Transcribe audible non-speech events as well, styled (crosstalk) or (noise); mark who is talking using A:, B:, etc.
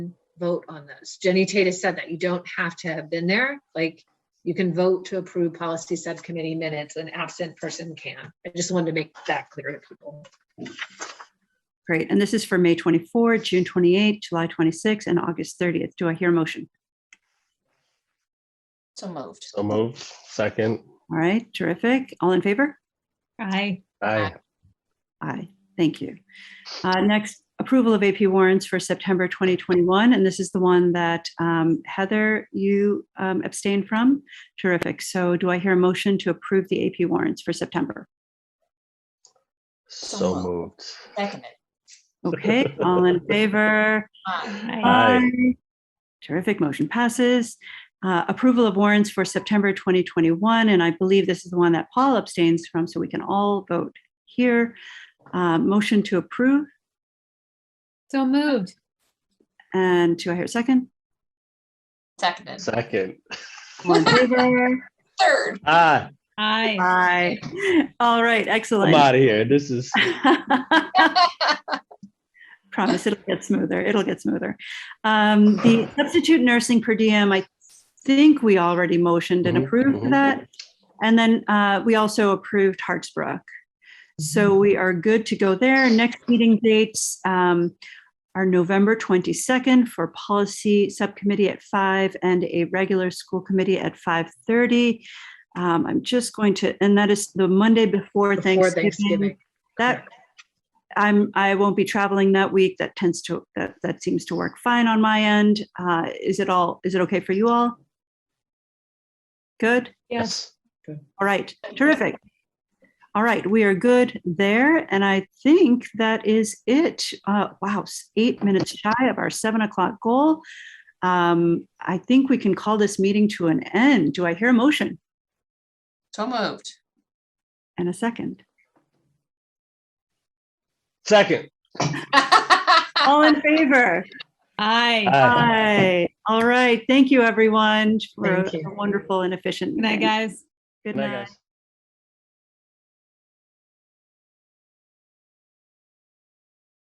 A: vote on this. Jenny Tate said that you don't have to have been there, like, you can vote to approve policy subcommittee minutes, an absent person can. I just wanted to make that clear to people.
B: Great. And this is for May 24, June 28, July 26, and August 30th. Do I hear a motion?
C: So moved.
D: So moved. Second.
B: All right, terrific. All in favor?
E: Aye.
D: Aye.
B: Aye, thank you. Uh, Next, approval of AP warrants for September 2021, and this is the one that um, Heather, you um, abstained from. Terrific. So do I hear a motion to approve the AP warrants for September?
D: So
C: moved.
D: moved.
C: Seconded.
B: Okay, all in favor?
C: Aye.
D: Aye.
B: Aye. Terrific, motion passes. Uh, Approval of warrants for September 2021, and I believe this is the one that Paul abstains from, so we can all vote here. Uh, Motion to approve,
E: So moved.
B: and do I hear a second?
C: Seconded.
D: Second.
B: All in favor?
C: Third.
D: Ah,
E: Aye.
B: Aye.
E: (laughs)
B: All right,
D: I'm
B: excellent.
D: out of here. This is
B: (laughs) Promise it'll get smoother. It'll get smoother. Um, (laughs) the substitute nursing per diem, I think we already motioned and
D: Mhm,
B: approved
D: mhm.
B: that. And then, uh, we also approved Hartsbrook. So we are good to go there. Next meeting dates, um, are November 22nd for policy subcommittee at five and a regular school committee at 5:30. Um, I'm just going to, and that is the Monday before
A: Before
B: Thanksgiving.
A: Thanksgiving.
B: That, I'm, I won't be traveling that week. That tends to, that, that seems to work fine on my end. Uh, is it all, is it okay for you all? Good?
D: yes.
B: All right, terrific. All right, we are good there, and I think that is it. Uh, wow, s- eight minutes shy of our seven o'clock goal. Um, I think we can call this meeting to an end. Do I hear a motion
C: So moved.
B: and a second?
D: Second.
B: All in favor?
E: Aye.
D: Aye.
B: Aye. All right. Thank you, everyone, for
A: Thank you.
B: a wonderful and efficient
E: Good night,
B: meeting.
E: guys.
B: Good
D: Night,
B: night.
D: guys.